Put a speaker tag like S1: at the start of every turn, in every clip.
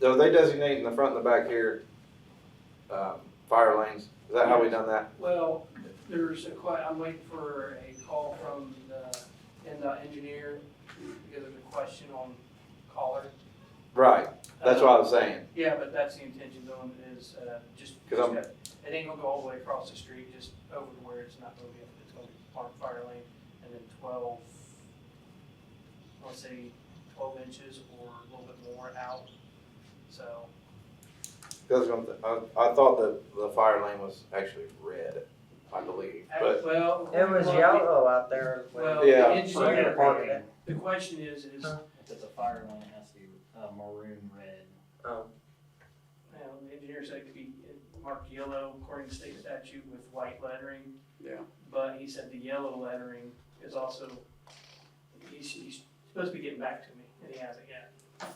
S1: So they designate in the front and the back here, um, fire lanes, is that how we done that?
S2: Well, there's a que, I'm waiting for a call from the, and the engineer, because there's a question on collar.
S1: Right, that's what I was saying,
S2: Yeah, but that's the intention though, is, uh, just,
S1: 'Cause I'm-
S2: it ain't gonna go all the way across the street, just over to where it's not gonna be, it's gonna be farm fire lane, and then twelve, let's say twelve inches or a little bit more out, so,
S1: because I, I thought that the fire lane was actually red, I believe,
S2: act-
S1: but,
S2: well.
S3: It was
S2: well,
S3: yellow out there. when-
S2: Well,
S1: Yeah.
S2: the
S3: For
S2: engineer,
S3: parking.
S2: the question is, is
S4: If it's a fire lane, it has to be uh, maroon red.
S3: Um,
S2: Well, the engineer said it could be marked yellow according to state statute with white lettering.
S5: Yeah.
S2: But he said the yellow lettering is also, he's, he's supposed to be getting back to me, and he hasn't yet,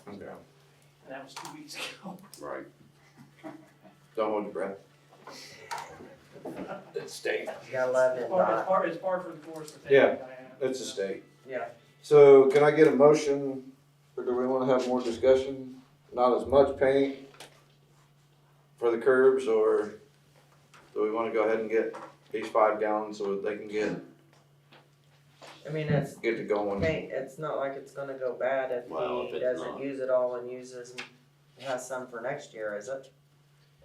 S1: okay,
S2: and that was two weeks ago.
S5: Right.
S1: don't hold your breath. It's state.
S3: Gotta love
S2: It's
S3: it,
S2: par, it's
S3: Doc.
S2: par, it's par for the course with
S1: Yeah,
S2: that guy.
S1: It's a state.
S3: Yeah.
S1: So can I get a motion, or do we wanna have more discussion? Not as much paint for the curbs, or do we wanna go ahead and get these five gallons so that they can get,
S3: I mean, it's
S1: get to going?
S3: paint. It's not like it's gonna go bad if
S5: Well, if
S3: he
S5: it's
S3: doesn't
S5: not.
S3: use it all and uses and has some for next year, is it?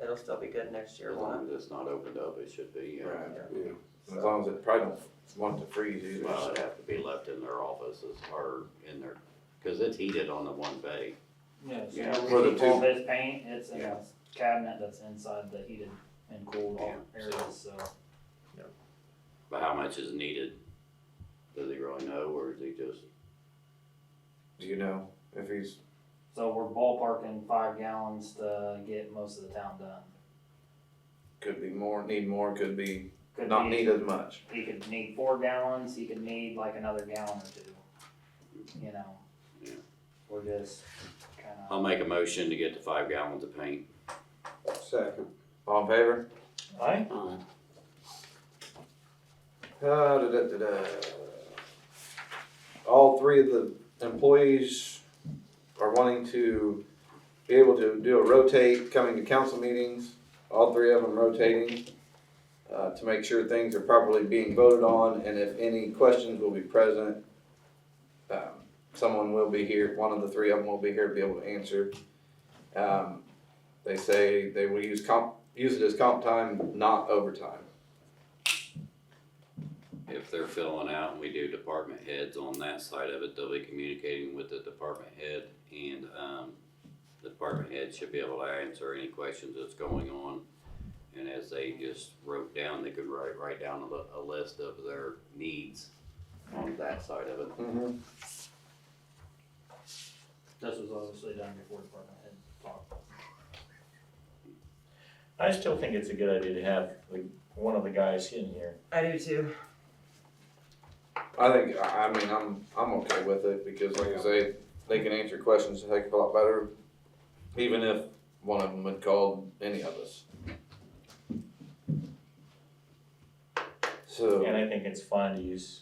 S3: It'll still be good next year,
S5: As
S3: won't
S5: long as it's not opened up, it should be, yeah.
S1: Right, yeah.
S3: it?
S1: As
S3: So-
S1: long as it probably don't want to freeze either.
S5: Well, it'd have to be left in their offices or in their, cause it's heated on the one bay.
S4: No,
S5: Yeah,
S4: so
S1: for the
S4: we keep
S1: pump.
S4: this paint, it's in a
S5: Yeah.
S4: cabinet that's inside the heated and cooled
S5: Yeah,
S4: areas, so.
S5: But how much is needed? Does he really know or is he just,
S1: Do you know if he's,
S4: So we're ballparking five gallons to get most of the town done.
S1: could be more, need more, could be
S4: Could
S1: not
S4: be-
S1: need as much?
S4: He could need four gallons, he could need like another gallon or two, you know?
S5: Yeah.
S4: We're just kinda.
S5: I'll make a motion to get the five gallons of paint.
S1: Second. All in favor?
S4: Aye.
S1: Uh, da, da, da, da. All three of the employees are wanting to be able to do a rotate, coming to council meetings, all three of them rotating, uh, to make sure things are properly being voted on, and if any questions will be present. Um, Someone will be here, one of the three of them will be here to be able to answer. Um, They say they will use comp, use it as comp time, not overtime.
S5: If they're filling out and we do department heads on that side of it, they'll be communicating with the department head and, um, the department head should be able to answer any questions that's going on. And as they just wrote down, they could write, write down a, li- a list of their needs on that side of it.
S4: This was obviously done before department head talked.
S6: I still think it's a good idea to have like one of the guys in here.
S3: I do too.
S1: I think I I mean I'm I'm okay with it because like I say, they can answer questions a heck of a lot better, even if one of them had called any of us.
S6: And
S1: So
S6: I think it's fine to use,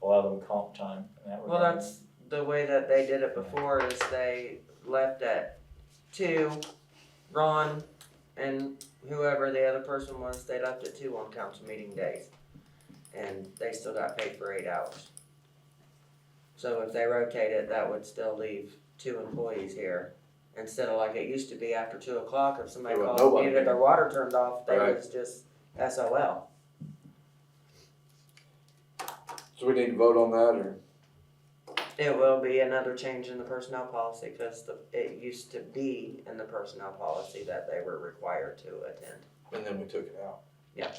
S6: allow them comp time in that
S3: Well,
S6: regard.
S3: that's the way that they did it before is they left at two, Ron and whoever the other person was, they left at two on council meeting days. And they still got paid for eight hours. So if they rotated, that would still leave two employees here. Instead of like it used to be after two o'clock, if somebody
S1: There was
S3: called,
S1: nobody
S3: needed their water turned off, they
S1: Right.
S3: was just SOL.
S1: so we need to vote on that or
S3: It will be another change in the personnel policy because the, it used to be in the personnel policy that they were required to attend.
S1: and then we took it out.
S3: Yeah.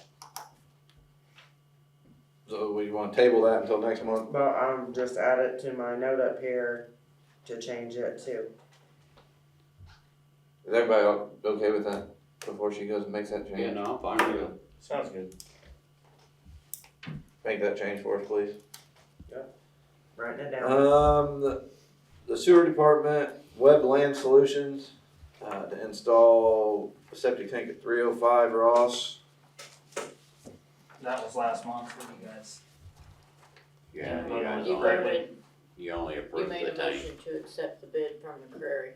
S1: So we want to table that until next month.
S3: Well, I'm just add it to my note up here to change it too.
S1: Is everybody o- okay with that before she goes and makes that change?
S5: Yeah, no, I'm fine with it.
S6: Sounds good.
S1: Make that change for us, please.
S3: Writing it down.
S1: Um, the- the sewer department, Web Land Solutions, uh, to install a septic tank at three oh five Ross.
S4: That was last month for you guys.
S5: Yeah,
S4: Yeah,
S5: you guys
S4: you
S7: You
S5: only,
S4: voted.
S7: voted,
S5: you only
S7: you
S5: approved
S7: made
S5: the
S7: a
S5: tank.
S7: motion to accept the bid from the Prairie.